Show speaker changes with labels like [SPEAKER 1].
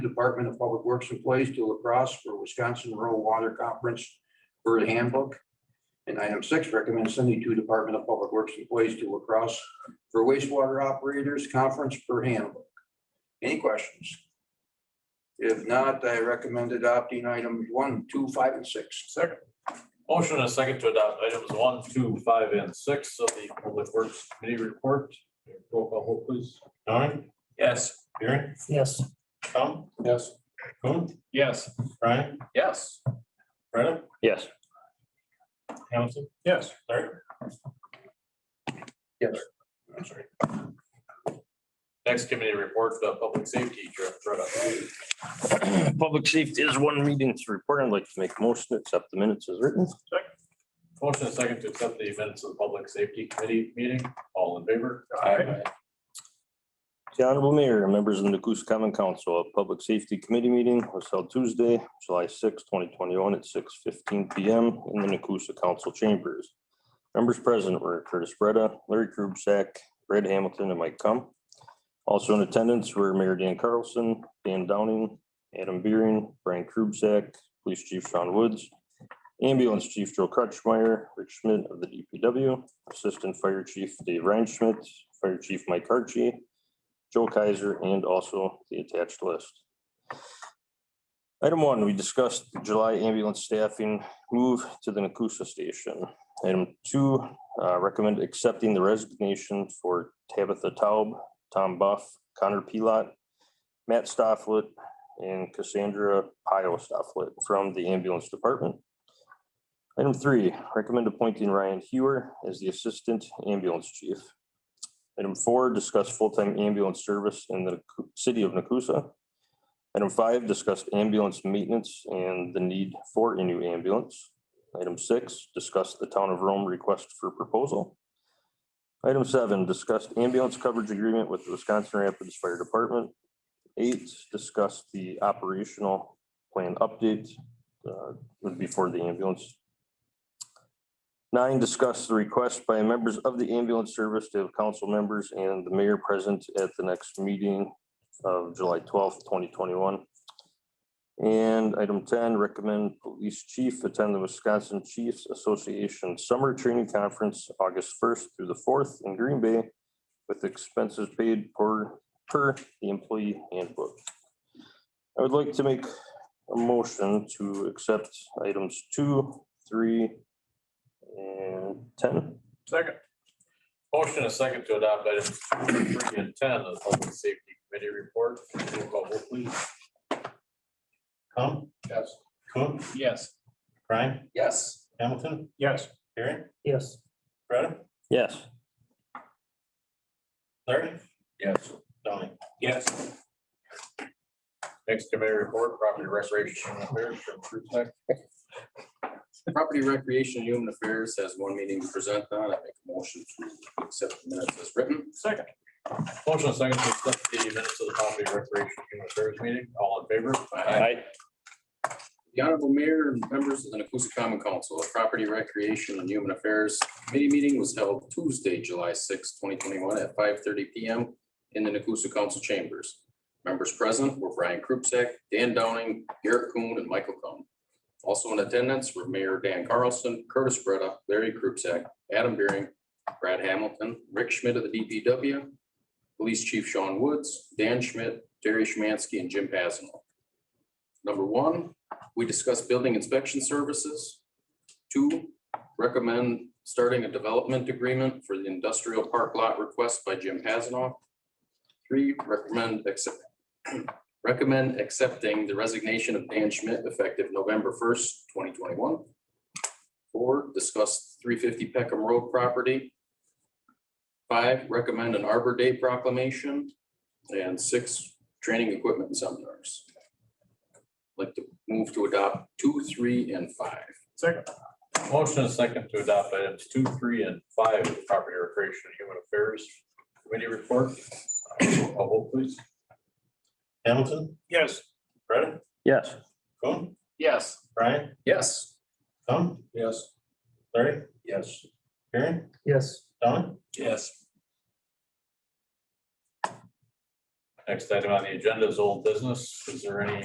[SPEAKER 1] Department of Public Works Employees to La Crosse for Wisconsin Rural Water Conference Bird Handbook. And item six, recommend sending two Department of Public Works Employees to La Crosse for wastewater operators conference per handbook. Any questions? If not, I recommend adopting items one, two, five, and six.
[SPEAKER 2] Second. Motion and a second to adopt items one, two, five, and six of the Public Works Committee report. Roll call vote, please.
[SPEAKER 3] Don,
[SPEAKER 2] Yes.
[SPEAKER 3] Aaron,
[SPEAKER 4] yes,
[SPEAKER 3] Tom,
[SPEAKER 2] Yes.
[SPEAKER 3] Coon,
[SPEAKER 2] Yes.
[SPEAKER 3] Brian,
[SPEAKER 2] Yes.
[SPEAKER 3] Freda,
[SPEAKER 5] Yes.
[SPEAKER 3] Hamilton,
[SPEAKER 2] Yes.
[SPEAKER 3] Larry.
[SPEAKER 1] I'm sorry.
[SPEAKER 2] Next committee report, the Public Safety Director. Loretta.
[SPEAKER 5] Public safety is one meeting to report. I'd like to make a motion to accept the minutes as written.
[SPEAKER 2] Motion and a second to accept the minutes of the Public Safety Committee meeting. All in favor?
[SPEAKER 3] Aye.
[SPEAKER 5] The Honorable Mayor, and members of the Goose Common Council, a public safety committee meeting was held Tuesday, July 6, twenty twenty-one at six fifteen P M in the Nacusa Council Chambers. Members present were Curtis Breda, Larry Krubsack, Brad Hamilton, and Mike Cum. Also in attendance were Mayor Dan Carlson, Dan Downing, Adam Beering, Brian Krubsack, Police Chief Sean Woods, Ambulance Chief Joe Crutchmeyer, Rich Schmidt of the D P W, Assistant Fire Chief Dave Reinschmidt, Fire Chief Mike Archie, Joe Kaiser, and also the attached list. Item one, we discussed the July ambulance staffing move to the Nacusa Station. Item two, uh, recommend accepting the resignation for Tabitha Taub, Tom Buff, Connor Pilot, Matt Stofflet, and Cassandra Pio Stofflet from the ambulance department. Item three, recommend appointing Ryan Hewer as the Assistant Ambulance Chief. Item four, discuss full-time ambulance service in the Nacu- city of Nacusa. Item five, discussed ambulance maintenance and the need for a new ambulance. Item six, discuss the town of Rome request for proposal. Item seven, discussed ambulance coverage agreement with the Wisconsin Rapids Fire Department. Eight, discussed the operational plan update uh, would be for the ambulance Nine, discuss the request by members of the ambulance service to have council members and the mayor present at the next meeting of July twelfth, twenty twenty-one. And item ten, recommend police chief attend the Wisconsin Chiefs Association Summer Training Conference, August first through the fourth in Green Bay with expenses paid per, per the employee handbook. I would like to make a motion to accept items two, three, and ten.
[SPEAKER 2] Second. Motion and a second to adopt items two, three, and ten of the Public Safety Committee report. Roll call vote, please.
[SPEAKER 3] Tom,
[SPEAKER 2] Yes.
[SPEAKER 3] Coon,
[SPEAKER 2] Yes.
[SPEAKER 3] Brian,
[SPEAKER 2] Yes.
[SPEAKER 3] Hamilton,
[SPEAKER 2] Yes.
[SPEAKER 3] Aaron,
[SPEAKER 4] yes,
[SPEAKER 3] Freda,
[SPEAKER 5] Yes.
[SPEAKER 3] Larry,
[SPEAKER 2] Yes.
[SPEAKER 3] Donnie.
[SPEAKER 2] Yes. Next committee report, property restoration and repairs from Krupek.
[SPEAKER 6] Property Recreation and Human Affairs has one meeting to present on. I make a motion to accept the minutes as written.
[SPEAKER 2] Second. Motion and second to accept the minutes of the property restoration and human affairs meeting. All in favor?
[SPEAKER 6] The Honorable Mayor and members of the Nacusa Common Council, a Property Recreation and Human Affairs Committee meeting was held Tuesday, July sixth, twenty twenty-one at five thirty P M in the Nacusa Council Chambers. Members present were Brian Krupsek, Dan Downing, Garrett Kuhn, and Michael Cohn. Also in attendance were Mayor Dan Carlson, Curtis Breda, Larry Krupsek, Adam Beering, Brad Hamilton, Rick Schmidt of the D P W, Police Chief Sean Woods, Dan Schmidt, Terry Schmansky, and Jim Pasano. Number one, we discussed building inspection services. Two, recommend starting a development agreement for the industrial park lot request by Jim Hasanoff. Three, recommend accept, recommend accepting the resignation of Dan Schmidt effective November first, twenty twenty-one. Four, discuss three fifty Peckham Road property. Five, recommend an Arbor Day proclamation. And six, training equipment and seminars. Like to move to adopt two, three, and five.
[SPEAKER 2] Second. Motion and second to adopt items two, three, and five of the property recreation and human affairs committee report. Uh, Roll call vote, please.
[SPEAKER 3] Hamilton,
[SPEAKER 2] Yes.
[SPEAKER 3] Freda,
[SPEAKER 5] Yes.
[SPEAKER 3] Coon,
[SPEAKER 2] Yes.
[SPEAKER 3] Brian,
[SPEAKER 6] Yes.
[SPEAKER 3] Tom,
[SPEAKER 2] Yes.
[SPEAKER 3] Larry,
[SPEAKER 1] Yes.
[SPEAKER 3] Aaron,
[SPEAKER 4] yes.
[SPEAKER 3] Don.
[SPEAKER 2] Yes. Next item on the agenda is old business. Is there any